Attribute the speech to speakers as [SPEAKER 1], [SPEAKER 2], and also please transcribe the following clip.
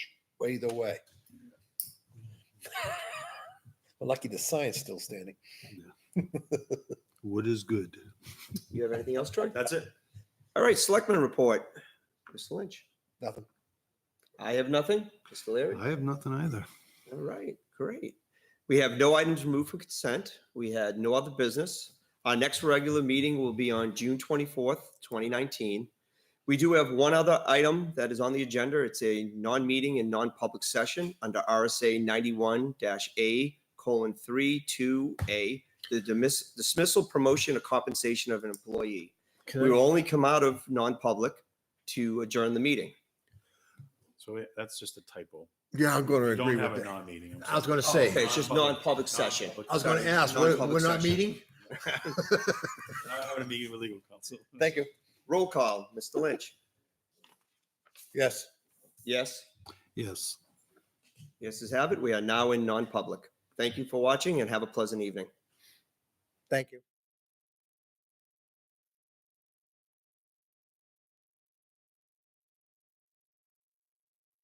[SPEAKER 1] either way. We're lucky the sign's still standing.
[SPEAKER 2] Wood is good.
[SPEAKER 3] You have anything else, Troy?
[SPEAKER 4] That's it.
[SPEAKER 3] All right, Selectman report. Mr. Lynch.
[SPEAKER 1] Nothing.
[SPEAKER 3] I have nothing. Mr. Leary?
[SPEAKER 2] I have nothing either.
[SPEAKER 3] All right, great. We have no items removed for consent. We had no other business. Our next regular meeting will be on June 24th, 2019. We do have one other item that is on the agenda. It's a non-meeting and non-public session under RSA 91-A colon 3, 2A, the dismiss- dismissal, promotion, or compensation of an employee. We will only come out of non-public to adjourn the meeting.
[SPEAKER 4] So we- that's just a typo.
[SPEAKER 5] Yeah, I'm going to
[SPEAKER 4] We
[SPEAKER 5] agree
[SPEAKER 4] don't have
[SPEAKER 5] with
[SPEAKER 4] a
[SPEAKER 5] that.
[SPEAKER 4] non-meeting. I'm
[SPEAKER 5] I was
[SPEAKER 4] sorry.
[SPEAKER 5] going to say,
[SPEAKER 1] Oh.
[SPEAKER 3] Okay, it's just non-public session.
[SPEAKER 5] I was going to
[SPEAKER 4] session.
[SPEAKER 5] ask, we're,
[SPEAKER 3] Non-public
[SPEAKER 5] we're not
[SPEAKER 3] session.
[SPEAKER 5] meeting?
[SPEAKER 4] I have a meeting with legal counsel.
[SPEAKER 1] Thank you.
[SPEAKER 3] Roll call, Mr. Lynch.
[SPEAKER 1] Yes.
[SPEAKER 3] Yes?
[SPEAKER 2] Yes.
[SPEAKER 3] Yes, as have it. We are now in non-public. Thank you for watching and have a pleasant evening.
[SPEAKER 1] Thank you.